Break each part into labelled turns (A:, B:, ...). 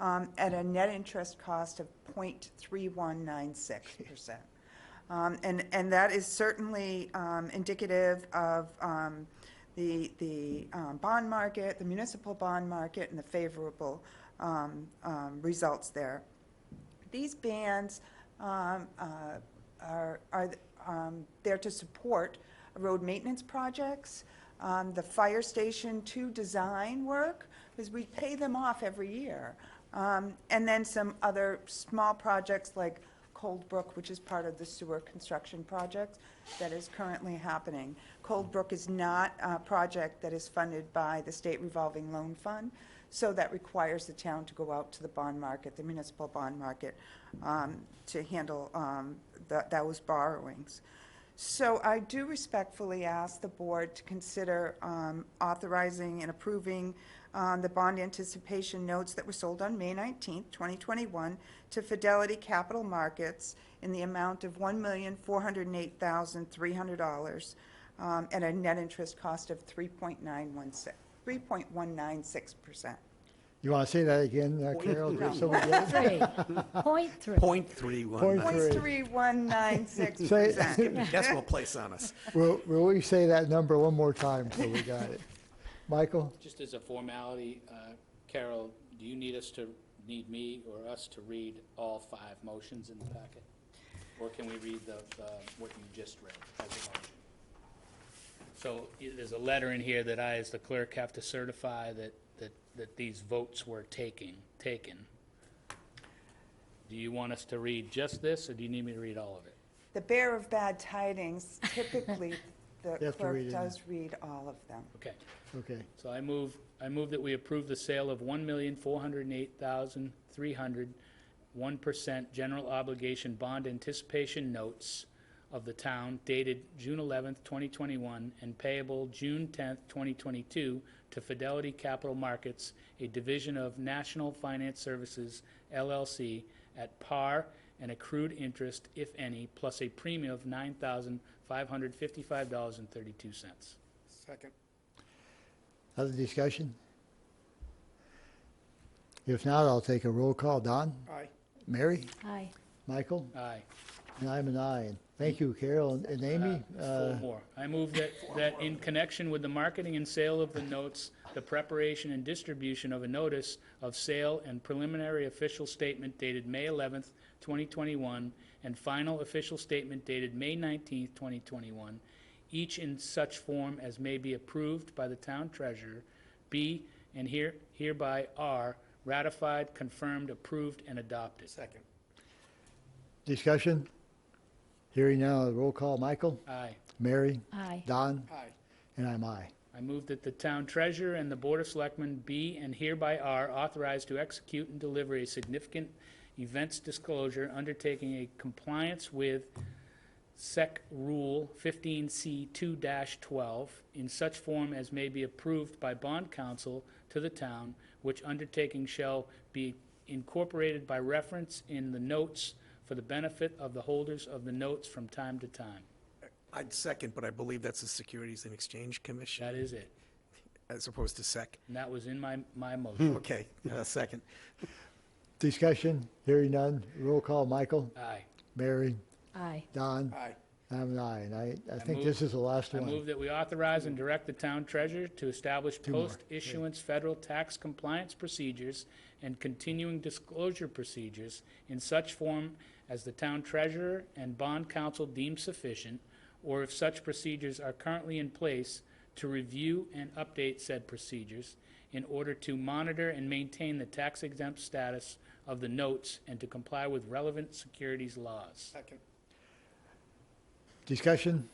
A: um, at a net interest cost of 0.3196%. Um, And, and that is certainly um, indicative of um, the, the um, bond market, the municipal bond market, and the favorable um, um, results there. These bans um, uh, are, are um, there to support road maintenance projects, um, the fire station two design work, because we pay them off every year. Um, And then some other small projects like Cold Brook, which is part of the sewer construction project that is currently happening. Cold Brook is not a project that is funded by the state revolving loan fund, so that requires the town to go out to the bond market, the municipal bond market, um, to handle um, tha- those borrowings. So I do respectfully ask the board to consider um, authorizing and approving um, the bond anticipation notes that were sold on May 19th, 2021, to Fidelity Capital Markets in the amount of $1,408,300 um, at a net interest cost of 3.916, 3.196%.
B: You want to say that again, uh, Carol, just so we get it?
C: Three, point three.
D: Point three one nine.
B: Great.
A: 0.3196%.
D: Decimal place on us.
B: Will, will we say that number one more time so we got it? Michael?
E: Just as a formality, uh, Carol, do you need us to, need me or us to read all five motions in the packet? Or can we read the, the- what you just read as a motion? So i- there's a letter in here that I, as the clerk, have to certify that, that, that these votes were taking, taken. Do you want us to read just this, or do you need me to read all of it?
A: The bearer of bad tidings, typically,
B: You
A: the
B: have to
A: clerk
B: read it.
A: does read all of them.
E: Okay.
B: Okay.
E: So I move, I move that we approve the sale of one million, four hundred and eight thousand, three hundred, one percent general obligation bond anticipation notes of the town dated June eleventh, twenty twenty-one, and payable June tenth, twenty twenty-two to Fidelity Capital Markets, a division of National Finance Services LLC, at par and accrued interest, if any, plus a premium of nine thousand, five hundred fifty-five dollars and thirty-two cents.
B: Other discussion? If not, I'll take a roll call. Don?
D: Aye.
B: Mary?
C: Aye.
B: Michael?
E: Aye.
B: And I'm an aye. And Thank you, Carol and- and Amy.
E: Four
B: Uh,
E: more. I move that, that in connection with the marketing and sale of the notes, the preparation and distribution of a notice of sale and preliminary official statement dated May 11th, 2021, and final official statement dated May 19th, 2021, each in such form as may be approved by the town treasurer, be and here hereby are ratified, confirmed, approved, and adopted.
D: Second.
B: Discussion? Hearing now, a roll call. Michael?
E: Aye.
B: Mary?
C: Aye.
B: Don?
D: Aye.
B: And I'm aye.
E: I move that the town treasurer and the board of selectmen be and hereby are authorized to execute and deliver a significant events disclosure undertaking a compliance with SEC Rule 15C2-12 in such form as may be approved by bond counsel to the town, which undertaking shall be incorporated by reference in the notes for the benefit of the holders of the notes from time to time.
D: I'd second, but I believe that's the Securities and Exchange Commission
E: That is it.
D: as opposed to SEC.
E: And that was in my, my motion.
D: Okay, uh, second.
B: Discussion? Hearing none. Roll call. Michael?
E: Aye.
B: Mary?
C: Aye.
B: Don?
D: Aye.
B: I'm an aye. And I, I think
E: move-
B: this is the last
E: I
B: one.
E: move that we authorize and direct the town treasurer to establish
B: more.
E: post-issuance federal tax compliance procedures and continuing disclosure procedures in such form as the town treasurer and bond counsel deem sufficient, or if such procedures are currently in place, to review and update said procedures in order to monitor and maintain the tax exempt status of the notes and to comply with relevant securities laws.
D: Second.
B: Discussion?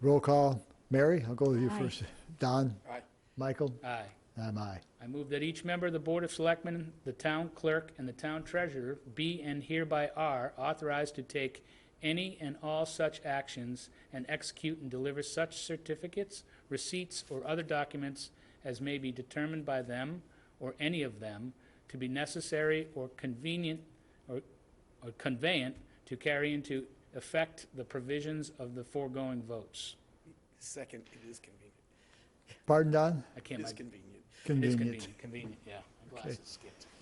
B: Roll call. Mary, I'll go with you
C: Aye.
B: first. Don?
D: Aye.
B: Michael?
E: Aye.
B: I'm aye.
E: I move that each member of the Board of Selectmen, the town clerk, and the town treasurer be and hereby are authorized to take any and all such actions and execute and deliver such certificates, receipts, or other documents as may be determined by them or any of them to be necessary or convenient or or conveyant to carry into effect the provisions of the foregoing votes.
D: Second, E it is convenient.
B: Pardon, Don?
E: I can't, my-
D: convenient.
E: it is
B: Convenient.
E: convenient, convenient, yeah. My glasses skipped.